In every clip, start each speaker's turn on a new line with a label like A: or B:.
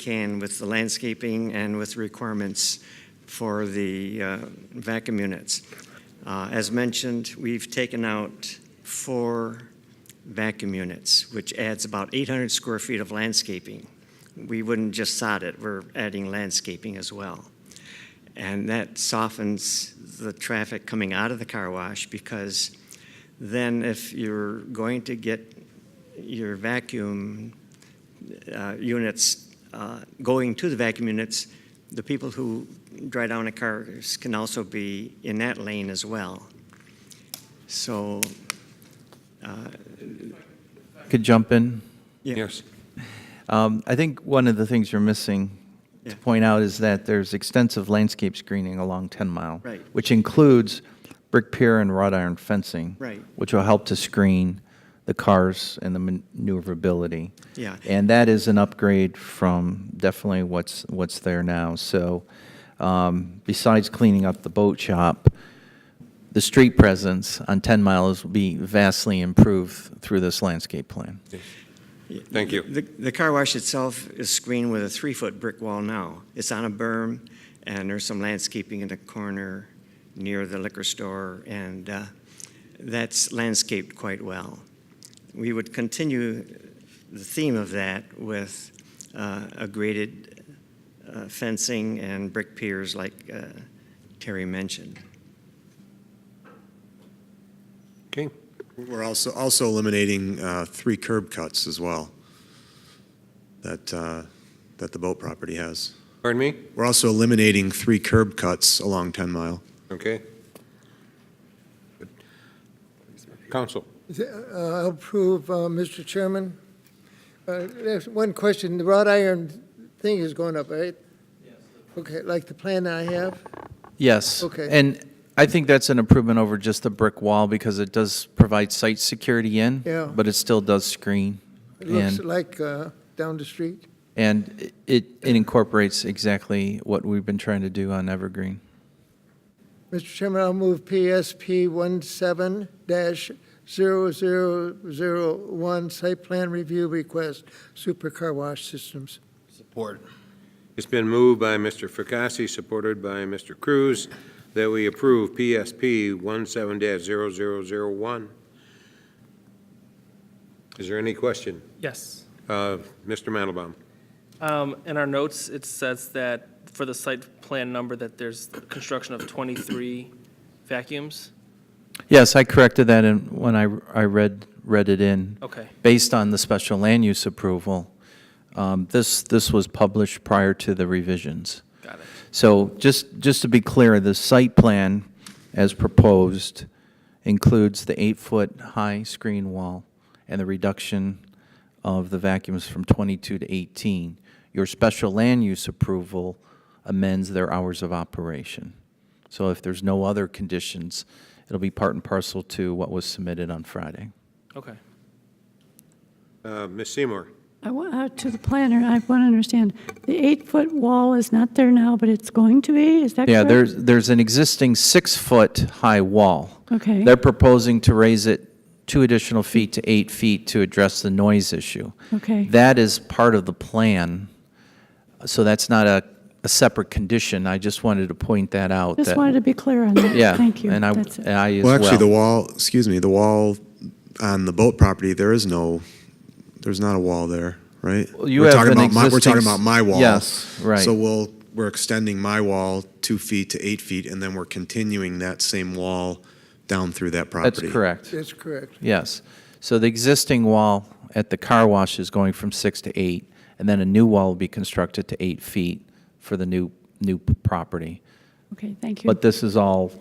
A: can with the landscaping and with requirements for the uh, vacuum units. Uh, As mentioned, we've taken out four vacuum units, which adds about 800 square feet of landscaping. We wouldn't just sod it, we're adding landscaping as well. And that softens the traffic coming out of the car wash because then if you're going to get your vacuum uh, units uh, going to the vacuum units, the people who dry down the cars can also be in that lane as well. So,
B: Could jump in.
A: yeah,
C: Yes.
B: Um, I think one of the things you're missing
A: Yeah.
B: to point out is that there's extensive landscape screening along 10 Mile.
A: Right.
B: Which includes brick pier and wrought iron fencing.
A: Right.
B: Which will help to screen the cars and the maneuverability.
A: Yeah.
B: And that is an upgrade from definitely what's, what's there now. So um, besides cleaning up the boat shop, the street presence on 10 miles will be vastly improved through this landscape plan.
C: Thank you.
A: the, the car wash itself is screened with a three-foot brick wall now. It's on a berm, and there's some landscaping in the corner near the liquor store, and uh, that's landscaped quite well. We would continue the theme of that with uh, a graded uh, fencing and brick piers like uh, Terry mentioned.
C: Okay.
D: We're also, also eliminating uh, three curb cuts as well that, uh, that the boat property has.
C: Pardon me?
D: We're also eliminating three curb cuts along 10 Mile.
C: Okay. Council.
E: Uh, I'll approve, uh, Mr. Chairman. Uh, There's one question, the wrought iron thing is going up, right? Okay, like the plan I have?
B: Yes.
E: Okay.
B: And I think that's an improvement over just the brick wall because it does provide site security in.
E: Yeah.
B: But it still does screen.
E: It looks
B: And-
E: like uh, down the street.
B: And it it incorporates exactly what we've been trying to do on Evergreen.
E: Mr. Chairman, I'll move PSP 17-0001, site plan review request, super car wash systems.
C: It's been moved by Mr. Fracassi, supported by Mr. Cruz, that we approve PSP 17-0001. Is there any question?
F: Yes.
C: Uh, Mr. Mandelbaum?
F: Um, In our notes, it says that for the site plan number, that there's construction of 23 vacuums.
B: Yes, I corrected that in, when I I read, read it in.
F: Okay,
B: Based on the special land use approval, um, this, this was published prior to the revisions.
F: got it.
B: So just, just to be clear, the site plan as proposed includes the eight-foot-high screen wall and the reduction of the vacuums from 22 to 18. Your special land use approval amends their hours of operation. So if there's no other conditions, it'll be part and parcel to what was submitted on Friday.
F: Okay.
C: Uh, Ms. Seymour?
G: I want, uh, to the planner, I want to understand, the eight-foot wall is not there now, but it's going to be, is that correct?
B: Yeah, there's, there's an existing six-foot-high wall.
G: Okay.
B: They're proposing to raise it two additional feet to eight feet to address the noise issue.
G: Okay.
B: That is part of the plan, so that's not a, a separate condition. I just wanted to point that out.
G: Just
B: that-
G: wanted to be clear on that.
B: Yeah.
G: Thank you.
B: And I,
G: That's it.
B: and I as
D: Well,
B: well.
D: actually, the wall, excuse me, the wall on the boat property, there is no, there's not a wall there, right?
B: Well, you
D: We're
B: have
D: talking
B: an
D: about my- We're talking
B: existing s-
D: about my wall.
B: yes, right.
D: So we'll, we're extending my wall two feet to eight feet, and then we're continuing that same wall down through
B: That's
D: that property.
B: correct,
E: That's correct.
B: yes. So the existing wall at the car wash is going from six to eight, and then a new wall will be constructed to eight feet for the new, new property.
G: Okay, thank you.
B: But this is all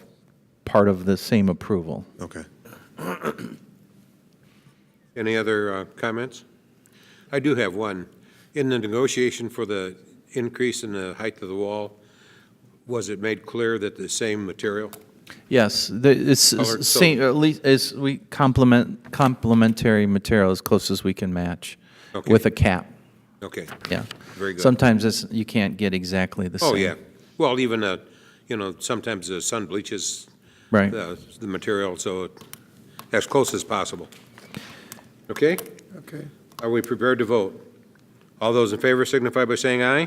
B: part of the same approval.
D: Okay.
C: Any other uh, comments? I do have one. In the negotiation for the increase in the height of the wall, was it made clear that the same material?
B: Yes, the, it's
C: Colored
B: s- same, at least, is, we complement, complementary material as close as we can match
C: Okay.
B: with a cap,
C: Okay.
B: yeah.
C: Very good.
B: Sometimes it's, you can't get exactly the same.
C: Oh, yeah. Well, even, uh, you know, sometimes the sun bleaches
B: Right.
C: the, the material, so as close as possible. Okay?
E: Okay.
C: Are we prepared to vote? All those in favor signify by saying aye.